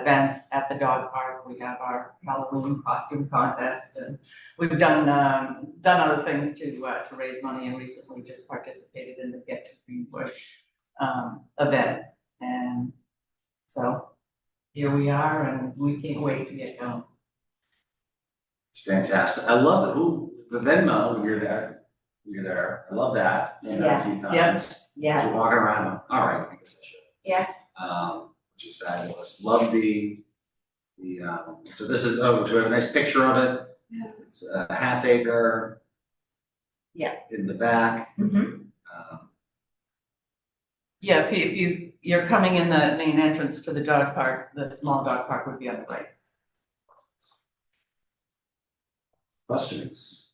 events at the dog park. We have our Halloween costume contest and we've done, um, done other things to, uh, to raise money and recently just participated in the Get to Green Bush, um, event. And so here we are and we can't wait to get going. It's fantastic. I love it. Ooh, the Venmo, when you're there, when you're there. I love that. You know, a few Yeah. times. Yeah, To walk around, all right, I guess I should. yes, Um, which is fabulous. Love the, the, um, so this is, oh, so we have a nice picture of it. Yeah. It's a half acre. Yeah. In the back. Mm-hmm. Um, Yeah, if you, if you, you're coming in the main entrance to the dog park, the small dog park would be on the right. Questions?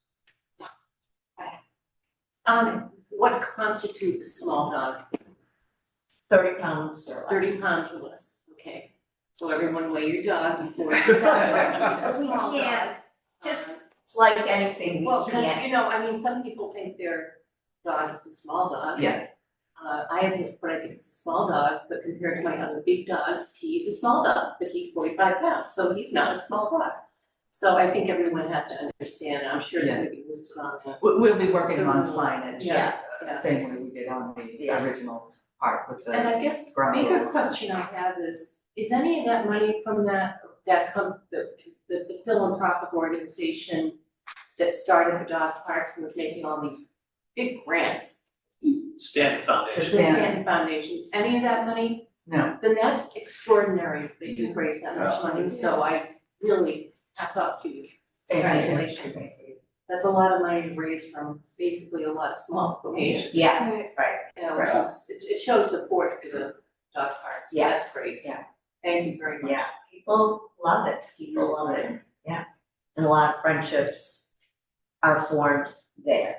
Um, what constitutes a small dog? thirty pounds or less. Thirty pounds or less, okay? So everyone weigh your dog before you have one. It's a small We can't dog. Just like anything, Well, we because, can't, you know, I mean, some people think their dog is a small dog. Yeah. Uh, I haven't, but I think it's a small dog, but compared to my other big dogs, he's a small dog, but he's forty-five pounds, so he's not a small dog. So I think everyone has to understand, I'm sure it's Yeah. gonna be listed on the We, we'll be working on signage, Yeah, uh, same way we did on the Yeah. original park with And the I guess ground Bigger rules. question I have is, is any of that money from that, that come, the, the the philanthropic organization that started the dog parks and was making all these big grants, Stanton The Foundation. the stand- Stanton Foundation, any of that money? No. Then that's extraordinary that you've raised that much money, so I really hats off to you. Congratulations. That's a lot of money to raise from basically a lot of small donations, yeah, you know, which Right. is, it, it shows support to the dog parks, so Yeah. that's great. Yeah. Thank you very much. yeah, people love it, people love it, yeah. And a lot of friendships are formed there.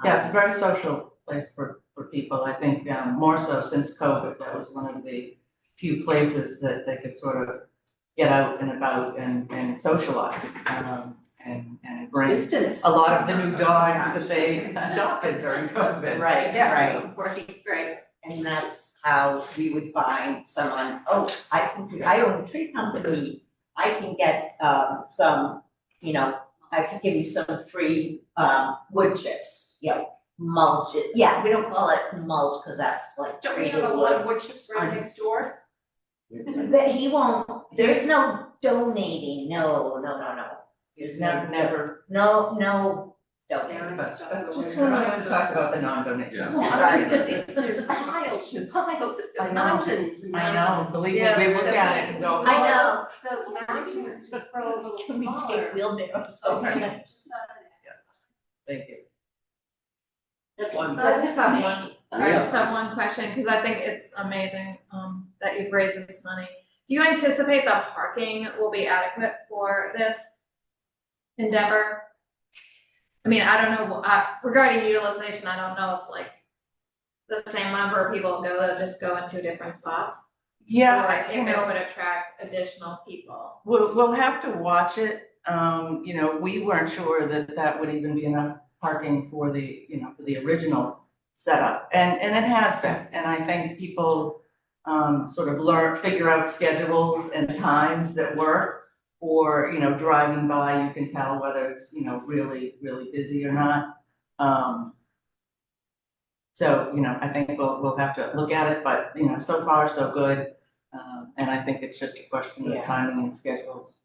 Um, Yeah, it's a very social place for, for people, I think, um, more so since COVID, that was one of the few places that they could sort of get out and about and, and socialize, um, and, and bring Distance. a lot of the new dogs that they adopted during COVID. Right, right, Right, right. and that's how we would find someone, oh, I can, I own a tree company, I can get, um, some, you know, I can give you some free, um, wood chips, you know, mulch, it- yeah, we don't call it mulch, cause that's like Don't we treated wood. have a lot of wood chips right Um, next door? That he won't, there's no donating, no, no, no, no. There's Never, never, No, no, donating. Now I'm but stuck that's over just here. when I was talking about the non-donations. Yeah. Well, I Sorry. mean, but it's- there's piles and piles I know. and mountains and I know, mountains. believe me, Yeah, we look they're at it and big. go, "Oh, I know. Those mountains to grow a little Can we smaller. take wheelbarrows over Okay, there? just not an thank you. That's One. I just have one, I Yeah. just have one question, because I think it's amazing, um, that you've raised this money. Do you anticipate that parking will be adequate for this endeavor? I mean, I don't know, uh, regarding utilization, I don't know if like the same number of people go, they'll just go in two different spots. Yeah, Or I- you if know, it would attract additional people. We'll, we'll have to watch it, um, you know, we weren't sure that that would even be enough parking for the, you know, for the original setup, and, and it has been, and I think people um, sort of learn, figure out schedules and times that work, or, you know, driving by, you can tell whether it's, you know, really, really busy or not. Um, so, you know, I think we'll, we'll have to look at it, but, you know, so far, so good, um, and I think it's just a question Yeah. of timing and schedules.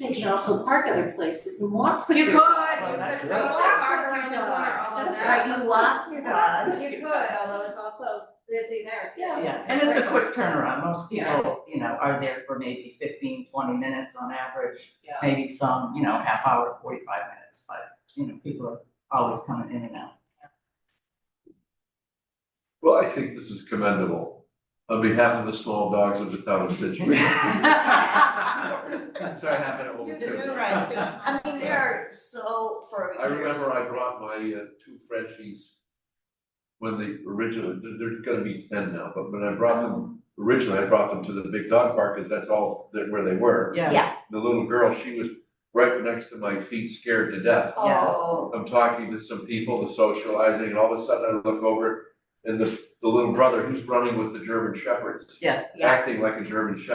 They can also park other places and walk. with You their could, you could dog. put right. a car around the corner, although Right, that, you walk your dog, you could, although it's also busy there too. Yeah. Yeah, and it's a quick turnaround, most people, you know, are there for maybe 15, 20 minutes on average, Yeah. maybe some, you know, half hour, forty-five minutes, but, you know, people are always coming in and out. Well, I think this is commendable on behalf of the small dogs of the town of Situate. Sorry, I have it over You're too. doing Right. too small. I mean, there are so for I remember I brought my uh, two Frenchies when they originally, they're, they're gonna be ten now, but when I brought them, originally I brought them to the big dog park, cause that's all, that where they were. Yeah. Yeah. The little girl, she was right next to my feet, scared to death. Oh, I'm talking to some people, the socializing, and all of a sudden I look over and the the little brother, he's running with the German shepherds. Yeah. Yeah. Acting like a German shepherd.